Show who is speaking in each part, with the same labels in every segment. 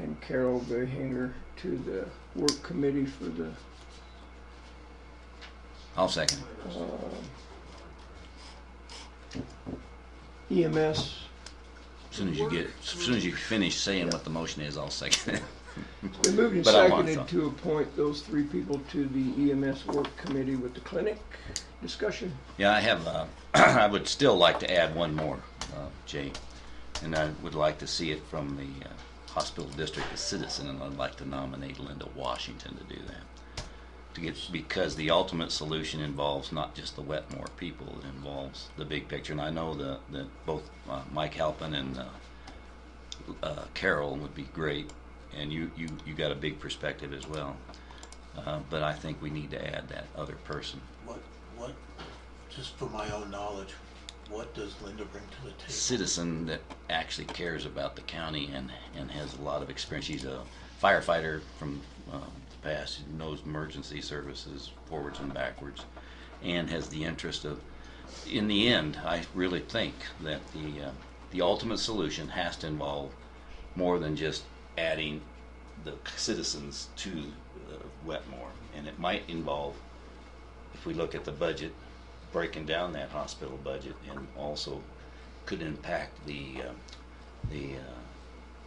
Speaker 1: and Carol Gahinger to the work committee for the
Speaker 2: I'll second.
Speaker 1: E EMS.
Speaker 2: As soon as you get, as soon as you finish saying what the motion is, I'll second it.
Speaker 1: They moved and
Speaker 2: But I want
Speaker 1: seconded
Speaker 2: some.
Speaker 1: to appoint those three people to the EMS work committee with the clinic. Discussion?
Speaker 2: Yeah, I have, uh, I would still like to add one more, uh, Jay. And I would like to see it from the uh, hospital district, a citizen, and I'd like to nominate Linda Washington to do that. To get, because the ultimate solution involves not just the Wetmore people, it involves the big picture. And I know that, that both uh, Mike Halpin and uh, uh, Carol would be great, and you, you, you got a big perspective as well. Uh, But I think we need to add that other person.
Speaker 3: What, what, just for my own knowledge, what does Linda bring to the table?
Speaker 2: citizen that actually cares about the county and, and has a lot of experience. She's a firefighter from um, the past, who knows emergency services forwards and backwards, and has the interest of. In the end, I really think that the uh, the ultimate solution has to involve more than just adding the citizens to uh, Wetmore, and it might involve if we look at the budget, breaking down that hospital budget and also could impact the, uh, the uh,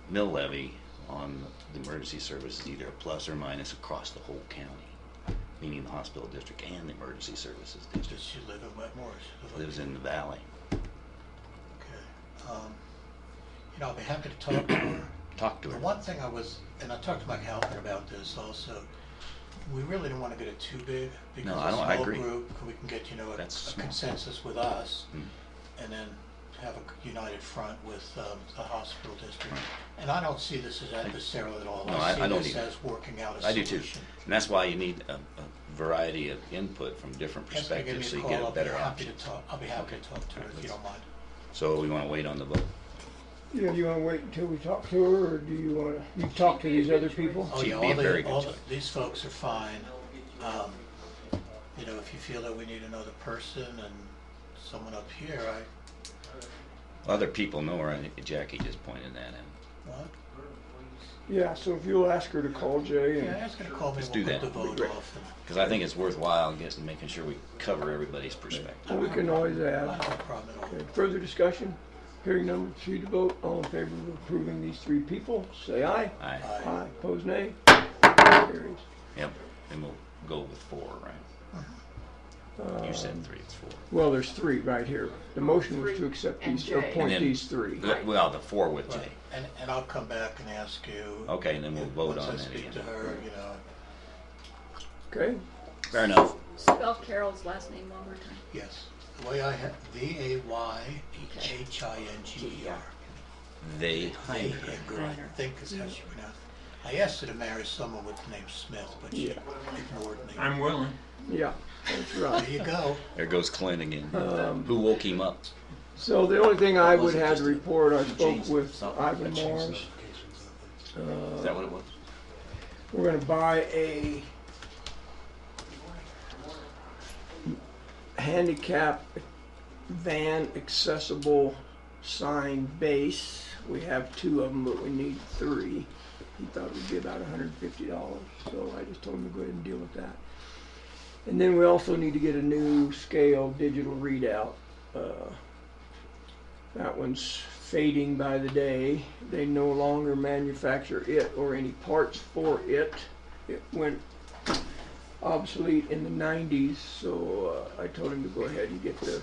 Speaker 2: mill levy on the emergency services, either a plus or minus across the whole county, meaning the hospital district and the emergency services
Speaker 3: Does
Speaker 2: district.
Speaker 3: she live in Wetmore? Does she live-
Speaker 2: Lives in the valley.
Speaker 3: Okay. Um, You know, I'll be happy to talk to her.
Speaker 2: Talk to
Speaker 3: The
Speaker 2: her.
Speaker 3: one thing I was, and I talked to Mike Halpin about this also, we really don't want to get it too big because
Speaker 2: No, I don't- I
Speaker 3: a small
Speaker 2: agree.
Speaker 3: group, we can get, you know, a
Speaker 2: That's
Speaker 3: a
Speaker 2: small.
Speaker 3: consensus with us
Speaker 2: Mm.
Speaker 3: and then have a united front with um, the hospital district.
Speaker 2: Right.
Speaker 3: And I don't see this as adversarial at all.
Speaker 2: No, I- I don't
Speaker 3: see this
Speaker 2: either.
Speaker 3: as working out a
Speaker 2: I do too.
Speaker 3: solution.
Speaker 2: And that's why you need a, a variety of input from different
Speaker 3: Yes, they give me
Speaker 2: perspectives so
Speaker 3: a
Speaker 2: you
Speaker 3: call.
Speaker 2: get
Speaker 3: I'll
Speaker 2: a
Speaker 3: be
Speaker 2: better
Speaker 3: happy to
Speaker 2: option.
Speaker 3: talk- I'll be happy to talk to her
Speaker 2: Alright,
Speaker 3: if you
Speaker 2: let's-
Speaker 3: don't mind.
Speaker 2: So we want to wait on the vote.
Speaker 1: Yeah, do you wanna wait until we talk to her, or do you wanna, you talk to these other people?
Speaker 3: Oh,
Speaker 2: She'd
Speaker 3: yeah,
Speaker 2: be
Speaker 3: all
Speaker 2: very
Speaker 3: the,
Speaker 2: good
Speaker 3: all
Speaker 2: to
Speaker 3: the,
Speaker 2: it.
Speaker 3: these folks are fine. Um, you know, if you feel that we need another person and someone up here, I,
Speaker 2: Other people know her, and Jackie just pointed that out.
Speaker 3: what?
Speaker 1: Yeah, so if you'll ask her to call Jay
Speaker 3: Yeah, I
Speaker 1: and,
Speaker 3: was gonna call me,
Speaker 2: Let's
Speaker 3: we'll
Speaker 2: do
Speaker 3: put the
Speaker 2: that.
Speaker 3: vote
Speaker 1: Great.
Speaker 3: off and,
Speaker 2: Because I think it's worthwhile getting, making sure we cover everybody's perspective.
Speaker 1: we can always
Speaker 3: I don't
Speaker 1: add.
Speaker 3: have a problem at all.
Speaker 1: Okay, Further discussion? Hearing none, proceed to vote. All in favor of approving these three people, say aye.
Speaker 2: Aye.
Speaker 3: I,
Speaker 1: Aye, pose nay. Carries.
Speaker 2: Yep. And we'll go with four, right?
Speaker 1: Uh-huh.
Speaker 2: You said three, it's four.
Speaker 1: Well, there's three right here. The motion was to accept these,
Speaker 4: And Jay.
Speaker 2: And
Speaker 1: appoint
Speaker 2: then-
Speaker 1: these three.
Speaker 2: The- Well, the four with Jay.
Speaker 3: right. and, and I'll come back and ask you.
Speaker 2: Okay, and then we'll
Speaker 3: if-
Speaker 2: vote on
Speaker 3: Once I
Speaker 2: that
Speaker 3: speak to
Speaker 2: again.
Speaker 3: her, you know,
Speaker 1: Okay?
Speaker 2: Fair enough.
Speaker 4: Spell Carol's last name one more time.
Speaker 3: yes, the way I have, V A Y H I N G E R.
Speaker 2: They hired
Speaker 3: Hey,
Speaker 2: her.
Speaker 3: Edgar, I think is how she pronounced it. I asked her to marry someone with the name Smith, but she
Speaker 1: Yeah.
Speaker 3: ignored me.
Speaker 5: I'm willing.
Speaker 1: Yeah, that's
Speaker 3: There
Speaker 1: right.
Speaker 3: you go.
Speaker 2: There goes Clint again.
Speaker 1: Um,
Speaker 2: Who woke him up?
Speaker 1: So the only thing I would
Speaker 2: Wasn't
Speaker 1: have to
Speaker 2: just a-
Speaker 1: report, I
Speaker 2: she
Speaker 1: spoke
Speaker 2: changed
Speaker 1: with
Speaker 2: something.
Speaker 1: Ivan
Speaker 2: That changed
Speaker 1: Morris.
Speaker 2: Is that what it was?
Speaker 1: We're gonna buy a handicap van accessible sign base. We have two of them, but we need three. He thought it would be about hundred and fifty dollars, so I just told him to go ahead and deal with that. And then we also need to get a new scale digital readout. Uh, That one's fading by the day. They no longer manufacture it or any parts for it. It went obsolete in the 90s, so uh, I told him to go ahead and get the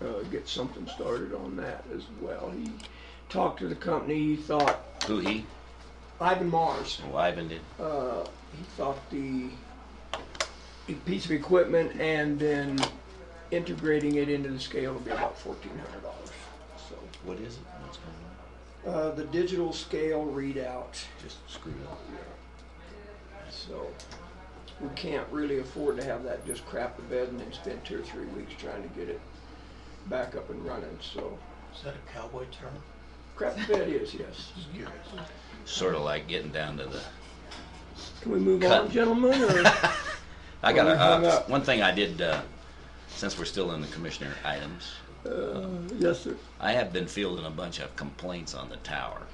Speaker 1: uh, get something started on that as well. He talked to the company. He thought
Speaker 2: Who he?
Speaker 1: Ivan Mars
Speaker 2: Oh, Ivan did.
Speaker 1: uh, he thought the the piece of equipment and then integrating it into the scale would be about fourteen hundred dollars. So,
Speaker 2: What is it? What's going on?
Speaker 1: uh, the digital scale readout,
Speaker 2: Just screwed up.
Speaker 1: so we can't really afford to have that just crap the bed and then spend two or three weeks trying to get it back up and running, so.
Speaker 3: Is that a cowboy term?
Speaker 1: Crap the bed is, yes.
Speaker 3: Just curious.
Speaker 2: Sort of like getting down to the
Speaker 1: Can we move on,
Speaker 2: Cut.
Speaker 1: gentlemen, or?
Speaker 2: I
Speaker 1: Well,
Speaker 2: got
Speaker 1: we hung
Speaker 2: a, uh,
Speaker 1: up.
Speaker 2: one thing I did, uh, since we're still in the commissioner items,
Speaker 1: Yes, sir.
Speaker 2: I have been fielding a bunch of complaints on the tower.